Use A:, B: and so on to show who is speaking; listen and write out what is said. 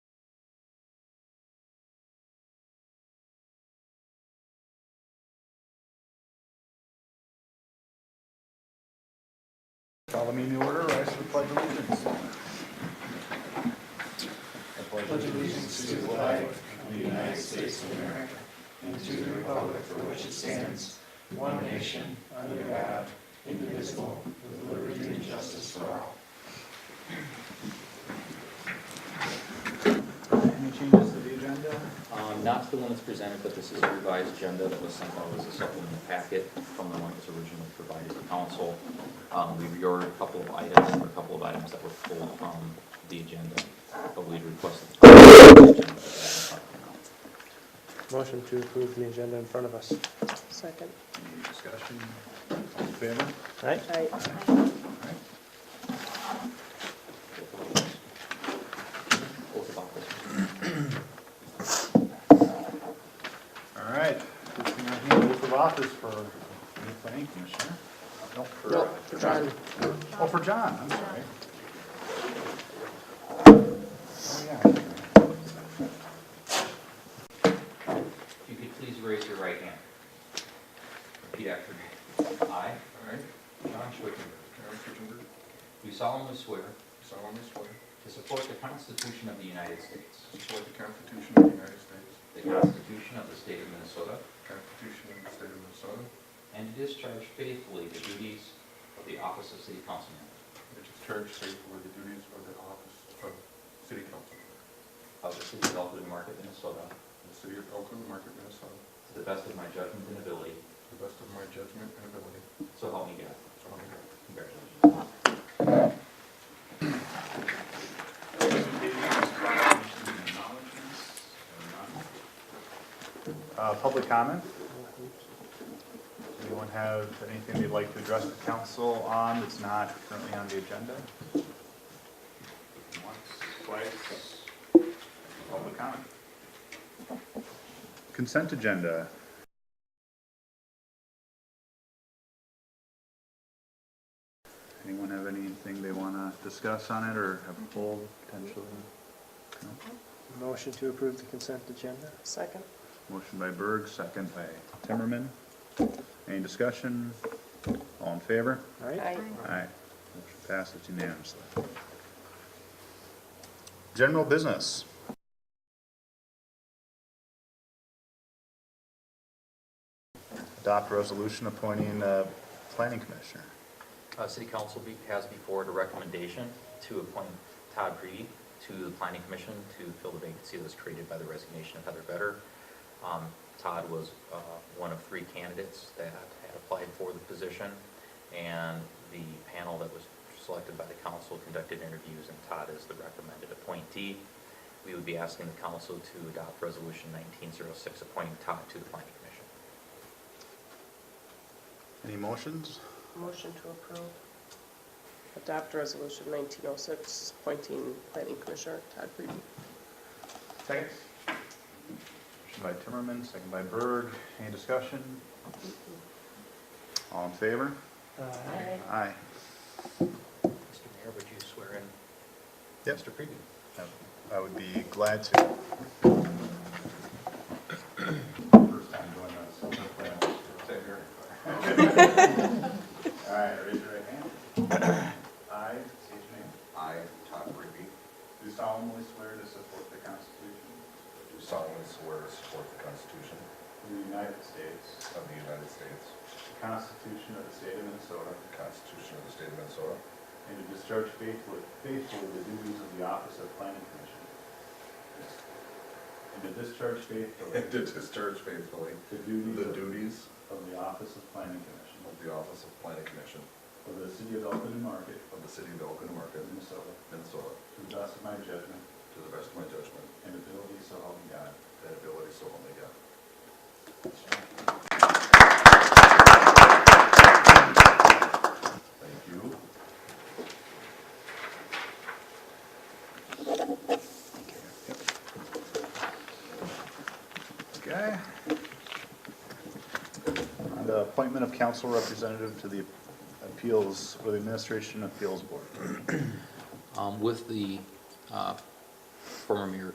A: Call the meeting to order, rise to the pledge of allegiance. Any changes to the agenda?
B: Um, Not to the one that's presented, but this is a revised agenda that was sent out as a supplemental packet from the one that was originally provided to council. Um, We reordered a couple of items, or a couple of items that were pulled from the agenda, but we requested. Any
C: Motion to approve the agenda in front of us.
D: Second.
A: Any discussion? All in favor?
C: Right?
D: Aye.
B: Oath of office.
A: All right. Just gonna hand oath of office for new planning commissioner. No, for, uh,
C: Nope, John.
A: Oh, for John, I'm sorry. Oh, yeah.
B: If you could please raise your right hand. Repeat after me. I
E: I,
B: John Schwickenberg,
E: John Kitchenberg,
B: do solemnly swear
E: solemnly swear
B: to support the Constitution of the United States,
E: to support the Constitution of the United States,
B: the Constitution of the State of Minnesota,
E: the Constitution of the State of Minnesota,
B: and to discharge faithfully the duties of the office of city council member
E: and discharge faithfully the duties of the office of City Council member
B: of the city of Elkhorn Market, Minnesota,
E: in the City of Elkhorn Market, Minnesota, to
B: to the best of my judgment and ability,
E: the best of my judgment and ability,
B: so help me God.
E: so help me God.
B: Congratulations.
A: Uh, Public comment? Anyone have anything they'd like to address the council on that's not currently on the agenda? Once, twice. Public comment. Consent agenda. Anyone have anything they want to discuss on it or have pulled potentially? No?
C: Motion to approve the consent agenda.
D: Second.
A: Motion by Berg, second by Timmerman. Any discussion? All in favor?
C: Right?
D: Aye.
A: Aye. Motion passes unanimously. General business. Adopt resolution appointing a planning commissioner.
B: Uh, City Council be- has before it a recommendation to appoint Todd Breedy to the Planning Commission to fill the vacancy that was created by the resignation of Heather Vedder. Um, Todd was uh, one of three candidates that had applied for the position, and the panel that was selected by the council conducted interviews, and Todd is the recommended appointee. We would be asking the council to adopt Resolution 1906 appointing Todd to the Planning Commission.
A: Any motions?
D: Motion to approve. Adopt resolution 1906, appointing planning commissioner Todd Breedy.
A: Second. Motion by Timmerman, second by Berg. Any discussion? All in favor?
C: Aye.
A: Aye.
B: Mr. Mayor, would you swear in
A: Yep.
B: Mr. Preview?
A: I would be glad to. All right, raise your right hand. I, state your name.
F: I, Todd Ruby,
A: Do solemnly swear to support the Constitution
F: do solemnly swear to support the Constitution
A: of the United States,
F: of the United States,
A: the Constitution of the State of Minnesota,
F: the Constitution of the State of Minnesota,
A: and to discharge faithfully faithfully the duties of the office of planning commission. And to discharge faithfully
F: and to discharge faithfully
A: the duties
F: the
A: of-
F: duties
A: of the office of planning commission
F: of the Office of Planning Commission
A: for the city of Elton Market,
F: of the City of Elkhorn Market,
A: Minnesota,
F: Minnesota,
A: to the best of my judgment
F: to the best of my judgment
A: and ability, so help me God.
F: and ability, so help me God. Thank you.
A: Okay. And the appointment of council representative to the appeals, or the administration appeals board.
B: Um, With the uh, former mayor